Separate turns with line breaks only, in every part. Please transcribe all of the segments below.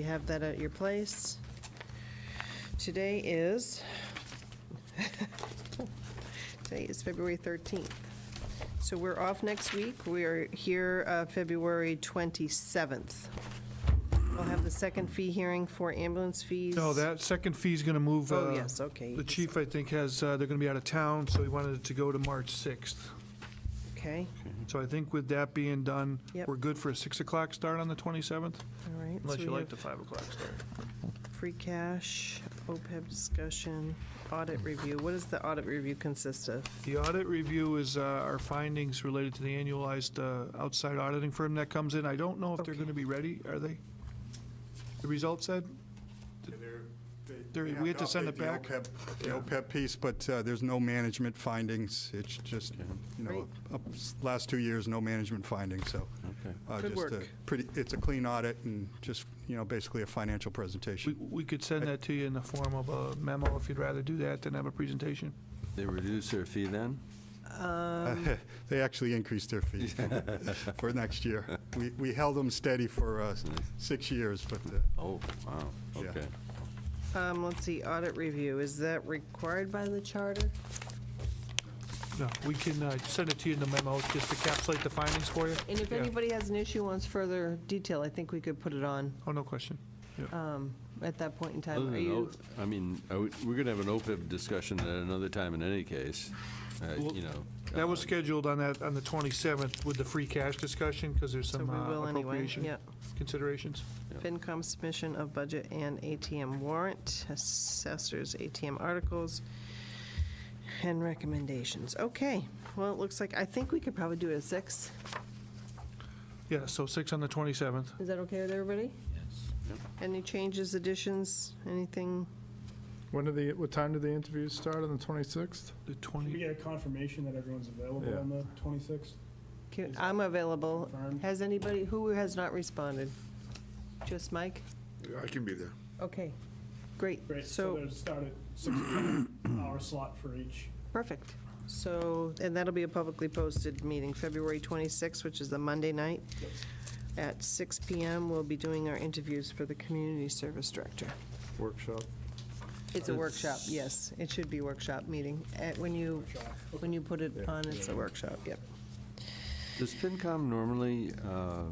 have that at your place. Today is, today is February 13th. So we're off next week. We are here uh, February 27th. We'll have the second fee hearing for ambulance fees.
No, that second fee's going to move.
Oh,
uh,
yes, okay.
The chief, I think, has, uh, they're going to be out of town, so he wanted it to go to March 6th.
Okay,
So I think with that being done,
Yep.
we're good for a 6 o'clock start on the 27th,
all right.
unless
so
you
we
like
have
the 5 o'clock start.
Free cash, OPEB discussion, audit review. What does the audit review consist of?
The audit review is uh, our findings related to the annualized uh, outside auditing firm that comes in. I don't know if they're
Okay.
going to be ready, are they? The results said? They're- we had to send it back?
The OPEB- the OPEB piece, but uh, there's no management findings. It's just, you know, up- last two years, no management findings, so.
Okay.
uh,
Good
just a
work.
Pretty, it's a clean audit and just, you know, basically a financial
We-
presentation.
We could send that to you in the form of a memo if you'd rather do that than have a presentation.
They reduce their fee then?
They actually increased their fees for next year. We, we held them steady for uh, six years, but uh,
Oh, wow,
Yeah.
okay.
Um, let's see, audit review, is that required by the charter?
No, we can uh, send it to you in the memo, just to encapsulate the findings for you.
And if
Yeah.
anybody has an issue, wants further detail, I think we could put it on,
Oh, no question.
um, at that point in
Other
time. Are
than,
you,
O- I mean, I would- we're going to have an OPEB discussion at another time in any case, uh,
Well,
you know.
That was
uh,
scheduled on that, on the 27th with the free cash discussion, because there's
so we
some uh,
will anyway,
appropriation
yeah.
considerations.
FinCom submission of budget and ATM warrant, assessors, ATM articles, and recommendations. Okay, well, it looks like, I think we could probably do it at six.
Yeah, so 6 on the 27th.
Is that okay with everybody?
Yep.
Yes. Any changes, additions, anything?
When do the, what time do the interviews start on the 26th?
The
Can we
20,
get a confirmation that everyone's available
Yeah.
on the 26th?
Can- I'm available.
Confirmed.
Has anybody, who has not responded? Just Mike?
I can be there.
Okay, great.
Great, so
So,
there's start at 6 p.m. hour slot for each.
perfect. So, and that'll be a publicly posted meeting, February 26th, which is the Monday night. At 6 PM, we'll be doing our interviews for the community service director.
Workshop.
It's a workshop, yes. It should be workshop meeting. At- When you, when you put it on, it's a workshop, yep.
Does FinCom normally uh,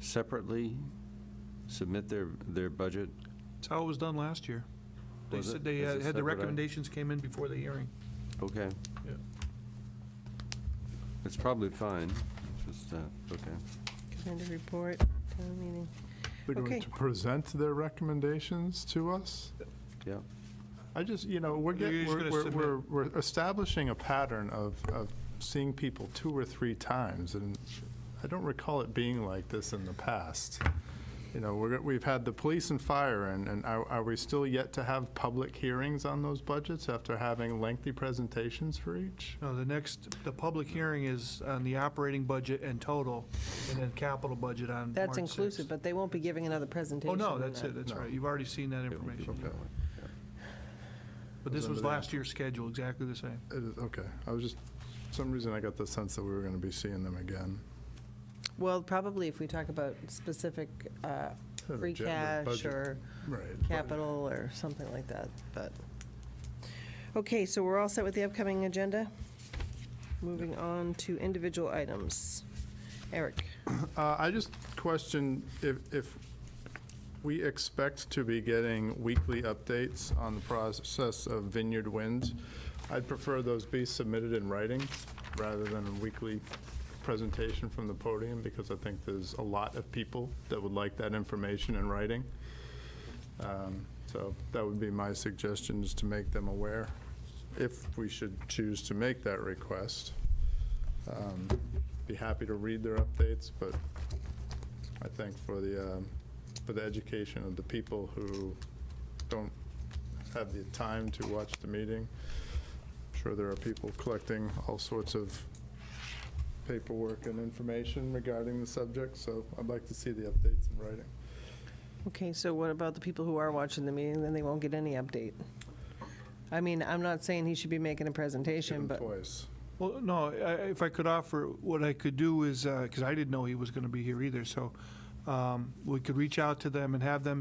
separately submit their, their budget?
that's how it was done last year. They
Was
said
it?
they uh,
Is it
had the
separate?
recommendations came in before the hearing.
Okay.
Yeah.
It's probably fine, it's just, uh, okay.
Committee report, town meeting.
They're
Okay.
going to present their recommendations to us?
Yeah.
I just, you know, we're
You're
getting,
just gonna
we're, we're-
submit.
we're, we're establishing a pattern of, of seeing people two or three times, and I don't recall it being like this in the past. You know, we're, we've had the police and fire, and, and are, are we still yet to have public hearings on those budgets after having lengthy presentations for each?
No, the next, the public hearing is on the operating budget and total, and then capital budget on
That's
March
inclusive,
6th.
but they won't be giving another presentation.
Oh, no,
on
that's
that.
it, that's
No.
right. You've already seen that
It won't be
information.
that way.
But this
Those
was
under there.
last year's schedule, exactly the same.
It is, okay, I was just, for some reason I got the sense that we were gonna be seeing them again.
Well, probably if we talk about specific uh,
An
free
agenda,
cash
budget.
or
Right.
capital or something like that, but. Okay, so we're all set with the upcoming agenda? Moving on to individual items. Eric?
Uh, I just question if, if we expect to be getting weekly updates on the process of Vineyard Wind, I'd prefer those be submitted in writing rather than a weekly presentation from the podium, because I think there's a lot of people that would like that information in writing. Um, So that would be my suggestion, is to make them aware, if we should choose to make that request. Um, Be happy to read their updates, but I think for the, um, for the education of the people who don't have the time to watch the meeting, I'm sure there are people collecting all sorts of paperwork and information regarding the subject, so I'd like to see the updates in writing.
Okay, so what about the people who are watching the meeting, then they won't get any update? I mean, I'm not saying he should be making a
Give
presentation,
them
but,
twice.
Well, no, I- I- if I could offer, what I could uh, do is, because I didn't know he was going to be here either, so um, we could reach out to them and have them